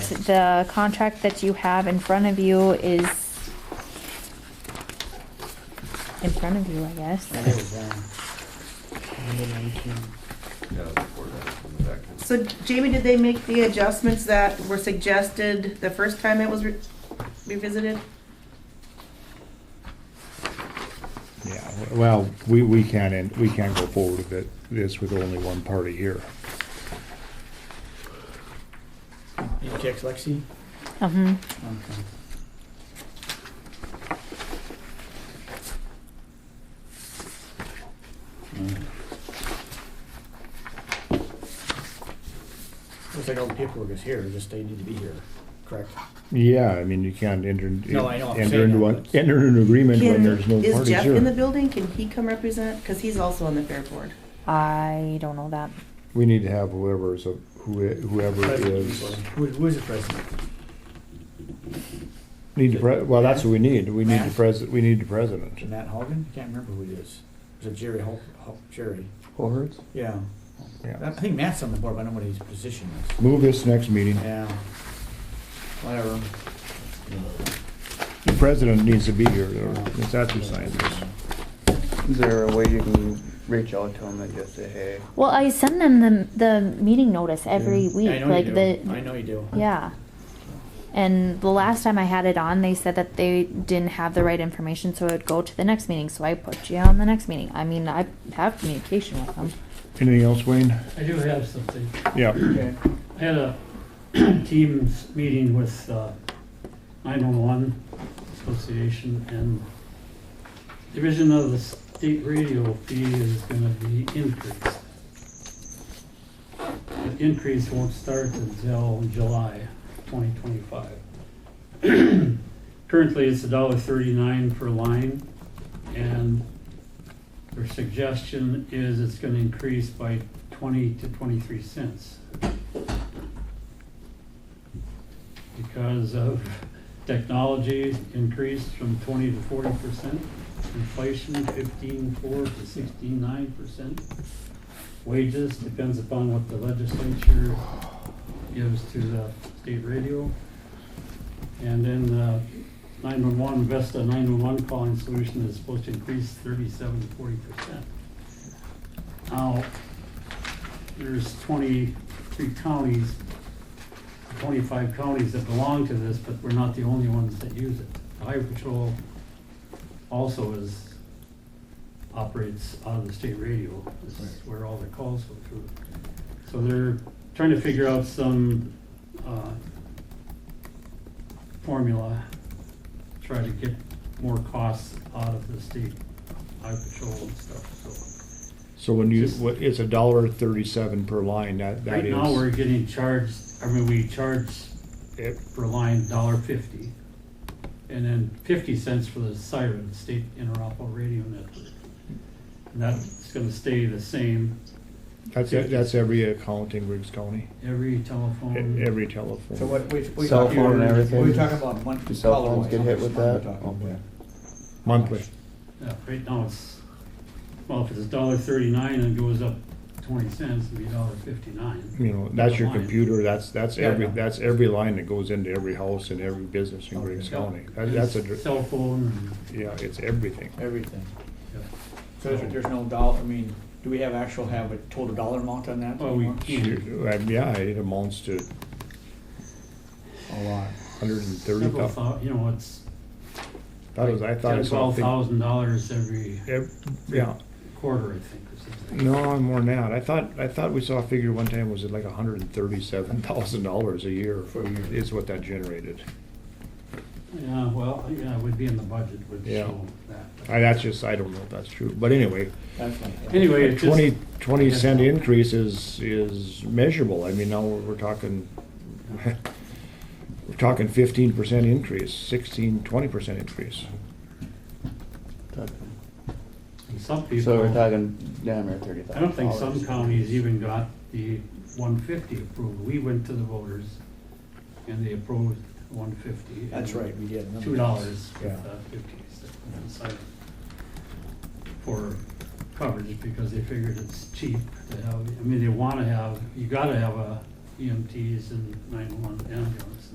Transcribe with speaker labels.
Speaker 1: the contract that you have in front of you is in front of you, I guess.
Speaker 2: That is, uh, number 19.
Speaker 3: Yeah, before that, in the back.
Speaker 4: So Jamie, did they make the adjustments that were suggested the first time it was re- revisited?
Speaker 5: Yeah, well, we, we can't, end- we can't go forward with it, this with only one party here.
Speaker 2: You text Lexi?
Speaker 1: Uh-huh.
Speaker 2: Okay. Mm. Looks like all the paperwork is here, just they need to be here, correct?
Speaker 5: Yeah, I mean, you can't enter,
Speaker 2: No, I know, I'm
Speaker 5: enter
Speaker 2: saying
Speaker 5: into
Speaker 2: that,
Speaker 5: one,
Speaker 2: but-
Speaker 5: enter into an agreement when
Speaker 4: Can-
Speaker 5: there's no
Speaker 4: Is
Speaker 5: parties
Speaker 4: Jeff in the
Speaker 5: here.
Speaker 4: building? Can he come represent? Because he's also on the fair board.
Speaker 1: I don't know that.
Speaker 5: We need to have whoever's, a- who- whoever
Speaker 2: President
Speaker 5: is,
Speaker 2: usually. Who, who is the president?
Speaker 5: need the pre, well, that's what we need, we need the
Speaker 2: Matt?
Speaker 5: president, we need the president.
Speaker 2: Matt Hogan? I can't remember who it is. Is it Jerry Hol, Hol- Jerry? Yeah. I
Speaker 5: Yeah.
Speaker 2: think Matt's on the board, but I don't know what his position is.
Speaker 5: Move this next meeting,
Speaker 2: Yeah. Whatever.
Speaker 5: the president needs to be here, or it's after sign this.
Speaker 6: Is there a way you can reach out to them and just say, hey,
Speaker 1: Well, I send them the, the meeting notice every
Speaker 6: Yeah.
Speaker 1: week,
Speaker 2: I know you
Speaker 1: like
Speaker 2: do.
Speaker 1: the
Speaker 2: I know you do.
Speaker 1: yeah. And the last time I had it on, they said that they didn't have the right information, so it would go to the next meeting. So I put you on the next meeting. I mean, I have communication with them.
Speaker 5: Anything else, Wayne?
Speaker 7: I do have something.
Speaker 5: Yeah,
Speaker 2: Okay.
Speaker 7: I had a Teams meeting with uh, 911 Association and division of the state radio fee is gonna be increased. The increase won't start until July 2025. Currently, it's $1.39 per line, and their suggestion is it's gonna increase by 20 to 23 cents. because of technology increased from twenty to forty percent, inflation fifteen four to sixteen nine percent. Wages depends upon what the legislature gives to the state radio. And then uh nine-one-one, Vesta nine-one-one calling solution is supposed to increase thirty-seven to forty percent. Now, there's twenty-three counties 25 counties that belong to this, but we're not the only ones that use it. Highway Patrol also is, operates out of the state radio. This is where all the calls go through. So they're trying to figure out some uh, formula, try to get more costs out of the state Highway Patrol and stuff, so.
Speaker 5: so when you,
Speaker 7: Just-
Speaker 5: what- it's a dollar thirty-seven per line, that, that
Speaker 7: Right
Speaker 5: is.
Speaker 7: now, we're getting charged, I mean, we charge it per line dollar fifty. And then fifty cents for the siren, state interoperable radio network. And that's gonna stay the same,
Speaker 5: That's, e- that's every account in Riggs County,
Speaker 7: every telephone.
Speaker 5: e- every
Speaker 2: Mm-hmm.
Speaker 5: telephone.
Speaker 2: So what, we, we.
Speaker 6: Cell
Speaker 2: talking-
Speaker 6: phone and everything?
Speaker 2: We talking about monthly.
Speaker 6: Do cell
Speaker 2: color-wise,
Speaker 6: phones get
Speaker 2: how
Speaker 6: hit
Speaker 2: much
Speaker 6: with
Speaker 2: money
Speaker 6: that?
Speaker 2: we're talking about.
Speaker 5: Monthly.
Speaker 7: Yeah, right now it's, well, if it's dollar thirty-nine and it goes up twenty cents, it'd be dollar fifty-nine.
Speaker 5: You know, that's your
Speaker 7: Line.
Speaker 5: computer, that's, that's
Speaker 2: Yeah, I
Speaker 5: every,
Speaker 2: know.
Speaker 5: that's every line that goes into every house and every business in Griggs
Speaker 2: Okay.
Speaker 5: County. That- That's a, dr-
Speaker 7: Cell phone
Speaker 5: yeah, it's everything.
Speaker 2: Everything.
Speaker 7: and,
Speaker 2: So there's there's no dollar, I mean, do we have actual, have a total dollar amount on that?
Speaker 7: Well, Oh, we
Speaker 2: anymore?
Speaker 7: can't.
Speaker 5: You- uh, Yeah, it amounts to
Speaker 2: A lot.
Speaker 5: hundred and thirty
Speaker 7: Several
Speaker 5: thousand.
Speaker 7: thou, you know, it's
Speaker 5: That was, I thought
Speaker 7: ten,
Speaker 5: it
Speaker 7: twelve
Speaker 5: was
Speaker 7: thousand dollars every
Speaker 5: Yeah,
Speaker 7: quarter, I think, or something.
Speaker 5: no, more than that. I thought, I thought we saw a figure one time, was it like hundred and thirty-seven thousand dollars a year
Speaker 2: For a year.
Speaker 5: is what that generated.
Speaker 7: Yeah, well, yeah, it would be in the budget, would
Speaker 5: Yeah.
Speaker 7: show that.
Speaker 5: I, that's just, I don't know if that's true, but anyway,
Speaker 2: That's my.
Speaker 7: Anyway,
Speaker 5: A
Speaker 7: it just,
Speaker 5: 20,
Speaker 7: yeah,
Speaker 5: 20 cent increase is, is measurable. I mean, now we're we're talking, we're talking fifteen percent increase, 16, 20 percent increase.
Speaker 7: some
Speaker 6: so we're
Speaker 7: people,
Speaker 6: talking down there thirty thousand.
Speaker 7: I don't think some counties even got the one fifty approved. We went to the voters and they approved one fifty.
Speaker 2: That's right, we did.
Speaker 7: Two dollars
Speaker 2: Yeah.
Speaker 7: with uh, fifty cents aside for coverage because they figured it's cheap to have, I mean, they wanna have, you gotta have a E EMTs and nine-one ambulance